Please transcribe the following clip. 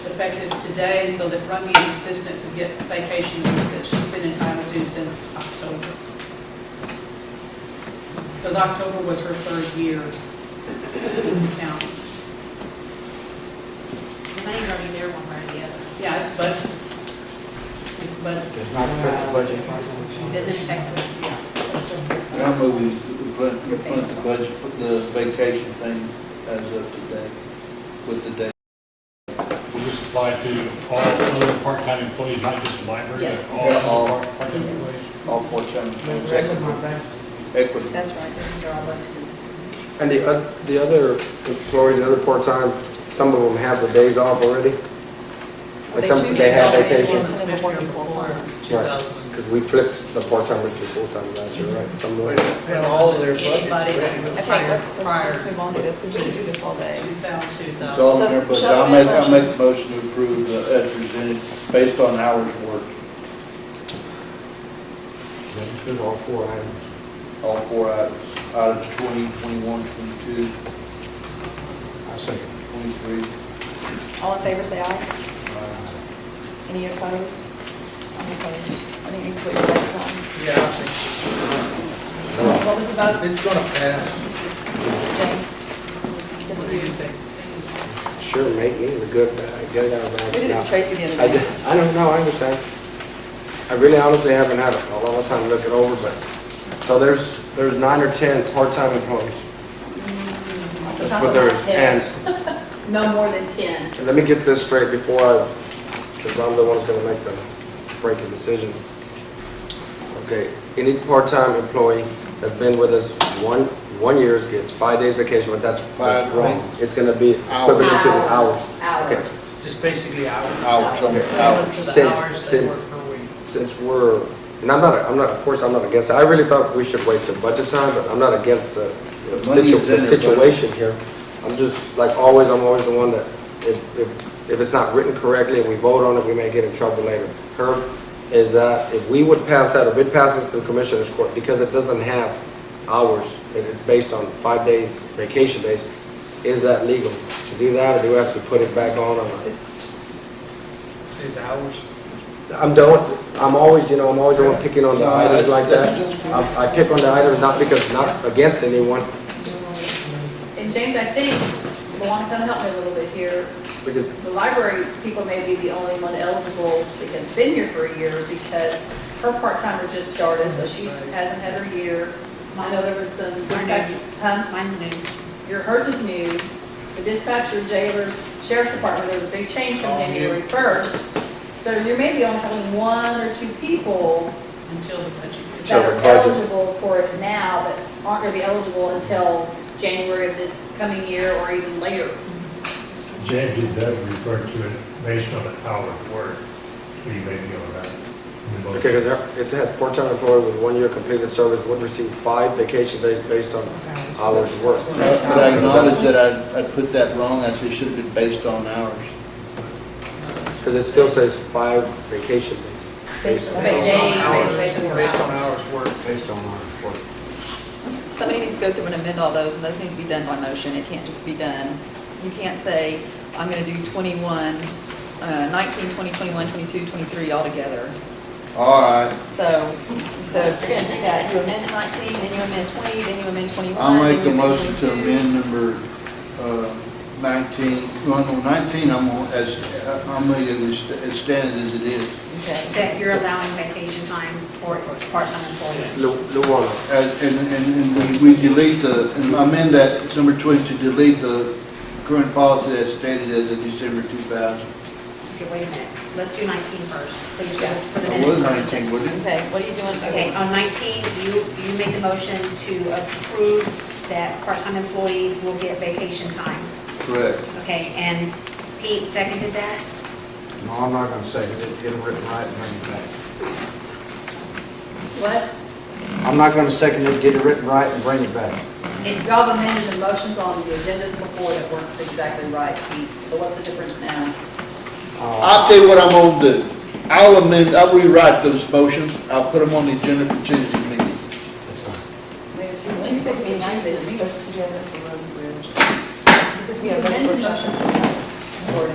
effective today so that Rungy's assistant could get vacation that she's been entitled to since October. Because October was her third year count. The money's already there one way or the other. Yeah, it's budget. It's budget, Does not affect the budget. It Doesn't affect the, yeah. I move we put, we put the budget, put the vacation thing as of today, with the day. Will this apply to all other part-time employees, not just the library? but Yes. Yeah, all. All part- part-time employees? all part-time employees, equity. that's right, this is all up to And the, oth- the other employees, the other part-time, some of them have the days off already? Like some, they have vacation? Because we flipped the part-timers to full-time last year, right? Some of them- And all of their Anybody. budgets. Okay, let's, let's- let's move on to this, because we could do this all day. 2002, It's though. all in there, but I'll make, I'll make a motion to approve the, as presented, based on hours worked, There's all four items. all four items, items 20, 21, 22, I second. 23. All in favor, say aye. uh, Any opposed? I'm opposed. I think it's what you're voting Yeah, I think on. What was the vote, it's gonna pass. James? What do you think? Sure, make me the good, bad, get it out of We bad. did it mouth. to Tracy the I other day. just, I don't know, I understand. I really honestly haven't had a lot of time to look it over, but, so there's, there's nine or 10 part-time employees. That's what there is. And no more than ten. And let me get this straight before I, since I'm the one that's gonna make the breaking decision. Okay, any part-time employee that's been with us one, one years gets five days vacation, but that's, that's Five, wrong. right. It's gonna be equivalent to the hours. Okay. Hours. It's just basically hours. Hours, on the hours. Since, since, since we're, and I'm not, I'm not, of course, I'm not against, it. I really thought we should wait till budget time, but I'm not against the the The money situ- is in the there, but- situation here. I'm just, like always, I'm always the one that, if, if, if it's not written correctly and we vote on it, we may get in trouble later. Herb, is that if we would pass that, if it passes through commissioners court, because it doesn't have hours, and it's based on five days, vacation days, is that legal to do that, or do we have to put it back on? or- Is hours. I'm don't, I'm always, you know, I'm always the one picking on the No, items like that. that's- that's- I I pick on the items not because, not against anyone, And James, I think, Luana kind of helped me a little bit here. because The library people may be the only one eligible to have been here for a year because her part-timer just started, so she hasn't had her year. I know there was some dispatch, huh? Mine's new. Your hers is new. The dispatcher, jailers, sheriff's department, there was a big change from All new. January first. So you may be only having one or two people Until the budget. that Sure, are budget. eligible for it now, but aren't gonna be eligible until January of this coming year or even later. James, it does refer to it based on the hour of work, so you may be all right. Okay, because it has part-time employee with one year completed service would receive five vacation days based on hours worked. But I acknowledge that I, I put that wrong, I said it should have been based on hours. Because it still says five vacation days. based on- Based Based day, on hours, based on based on hours worked. Based on hours worked. Somebody needs to go through and amend all those, and those need to be done by motion. It can't just be done. You can't say, I'm gonna do 21, uh, 19, 20, 21, 22, 23 all together. All right, So, so if you're gonna do that, you amend 19, then you amend 20, then you amend 21. I'll then make a you amend motion to 22. amend number uh, 19, well, no, 19, I'm, on- as, uh, I'm making it st- as standard as it is. Okay. That you're allowing vacation time for part-time employees. Lu- Luana. As- And, and and we we delete the, and amend that, number 20, to delete the current policy as stated as of December 2000. Okay, wait a minute, let's do 19 first, please, Yeah. for the It was minutes 19, purposes. wasn't it? Okay, what are you doing? Okay, on 19, you, you make a motion to approve that part-time employees will get vacation time, Correct. okay? And Pete seconded that? No, I'm not gonna say it. Get it written right and bring it back. What? I'm not gonna second it, get it written right and bring it back. And y'all have amended the motions on the agendas before that weren't exactly right, Pete, so what's the difference now? Uh, I'll tell you what I'm gonna do. I'll amend, I'll rewrite those motions, I'll put them on the agenda for Tuesday